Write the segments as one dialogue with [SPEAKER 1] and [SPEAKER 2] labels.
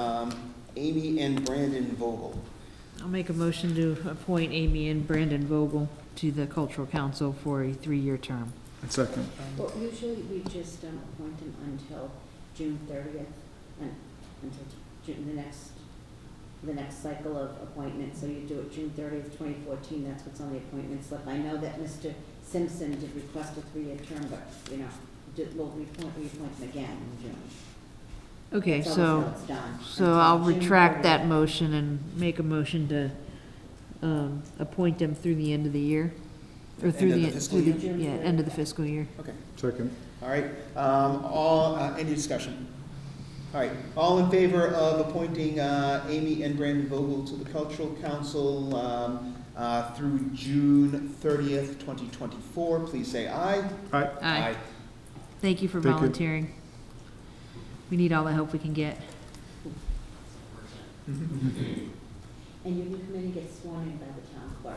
[SPEAKER 1] um, Amy and Brandon Vogel.
[SPEAKER 2] I'll make a motion to appoint Amy and Brandon Vogel to the Cultural Council for a three-year term.
[SPEAKER 3] And second,
[SPEAKER 4] Well, usually we just um, appoint them until June thirtieth, until June, the next, the next cycle of appointments. So you do it June thirtieth, twenty fourteen, that's what's on the appointment slip. I know that Mr. Simpson did request a three-year term, but, you know, did- we'll reappoint, reappoint him again in June.
[SPEAKER 2] Okay,
[SPEAKER 4] So
[SPEAKER 2] so,
[SPEAKER 4] until it's done,
[SPEAKER 2] so
[SPEAKER 4] until
[SPEAKER 2] I'll
[SPEAKER 4] June
[SPEAKER 2] retract
[SPEAKER 4] 30th.
[SPEAKER 2] that motion and make a motion to, um, appoint them through the end of the year. Or
[SPEAKER 1] End
[SPEAKER 2] through
[SPEAKER 1] of
[SPEAKER 2] the,
[SPEAKER 1] the fiscal
[SPEAKER 2] through the,
[SPEAKER 4] year?
[SPEAKER 2] yeah, end of the fiscal year.
[SPEAKER 1] Okay,
[SPEAKER 3] second,
[SPEAKER 1] all right, um, all, uh, any discussion? All right, all in favor of appointing, uh, Amy and Brandon Vogel to the Cultural Council, um, uh, through June thirtieth, twenty twenty-four, please say aye.
[SPEAKER 3] aye,
[SPEAKER 2] Aye. Thank you for
[SPEAKER 3] Thank you.
[SPEAKER 2] volunteering. We need all the help we can get.
[SPEAKER 4] And you can come in and get sworn in by the town clerk.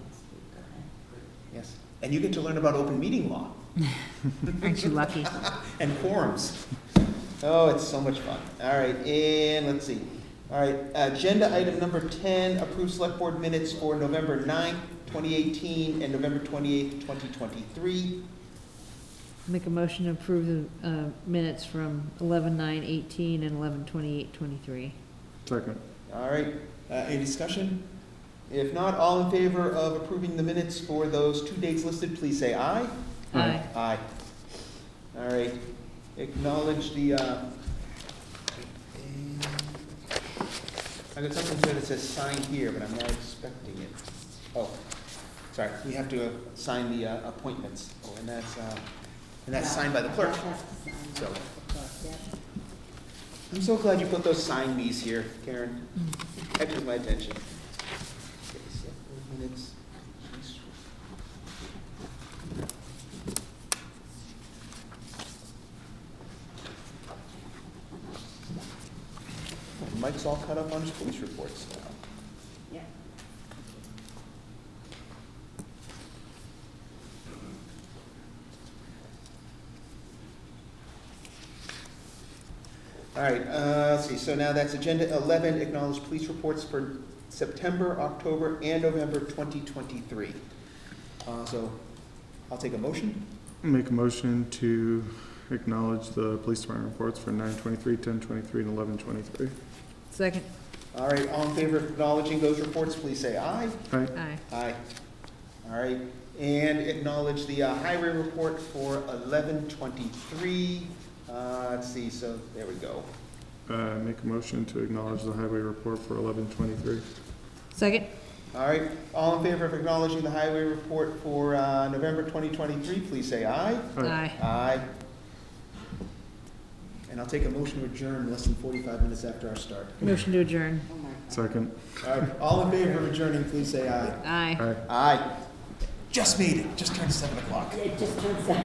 [SPEAKER 4] Next week, okay?
[SPEAKER 1] Yes, and you get to learn about open meeting law
[SPEAKER 2] Aren't you lucky?
[SPEAKER 1] and forums. Oh, it's so much fun. All right, and let's see. All right, agenda item number ten, approve select board minutes for November 9th, twenty eighteen, and November twenty-eighth, twenty twenty-three.
[SPEAKER 2] Make a motion to approve the, uh, minutes from eleven nine eighteen and eleven twenty-eight twenty-three.
[SPEAKER 3] second,
[SPEAKER 1] All right, uh, any discussion? If not, all in favor of approving the minutes for those two dates listed, please say aye.
[SPEAKER 3] Aye.
[SPEAKER 2] Aye.
[SPEAKER 1] Aye. All right, acknowledge the, uh, I got something here that says sign here, but I'm not expecting it. Oh, sorry, we have to uh, sign the uh, appointments, oh, and that's, uh, and that's signed by the clerk.
[SPEAKER 4] I'll have to sign that
[SPEAKER 1] So-
[SPEAKER 4] by the clerk, yeah.
[SPEAKER 1] I'm so glad you put those sign me's here, Karen. Catches my attention. Minutes. Mike's all caught up on his police reports now.
[SPEAKER 4] Yeah.
[SPEAKER 1] All right, uh, let's see, so now that's agenda eleven, acknowledge police reports for September, October, and November twenty twenty-three. Uh, so, I'll take a motion.
[SPEAKER 3] Make a motion to acknowledge the police department reports for nine twenty-three, ten twenty-three, and eleven twenty-three.
[SPEAKER 2] Second.
[SPEAKER 1] All right, all in favor of acknowledging those reports, please say aye.
[SPEAKER 3] Aye,
[SPEAKER 2] Aye.
[SPEAKER 1] Aye. All right, and acknowledge the uh, highway report for eleven twenty-three. Uh, let's see, so, there we go.
[SPEAKER 3] uh, make a motion to acknowledge the highway report for eleven twenty-three.
[SPEAKER 2] Second?
[SPEAKER 1] All right, all in favor of acknowledging the highway report for, uh, November twenty twenty-three, please say aye.
[SPEAKER 2] Aye.
[SPEAKER 1] Aye. And I'll take a motion to adjourn less than forty-five minutes after our start.
[SPEAKER 2] Motion to adjourn.
[SPEAKER 4] Oh, my God.
[SPEAKER 3] Second,
[SPEAKER 1] All right, all in favor of adjourning, please say aye.
[SPEAKER 2] Aye.
[SPEAKER 3] aye.
[SPEAKER 1] Aye. Just made it, just turned seven o'clock.
[SPEAKER 4] It just turns out.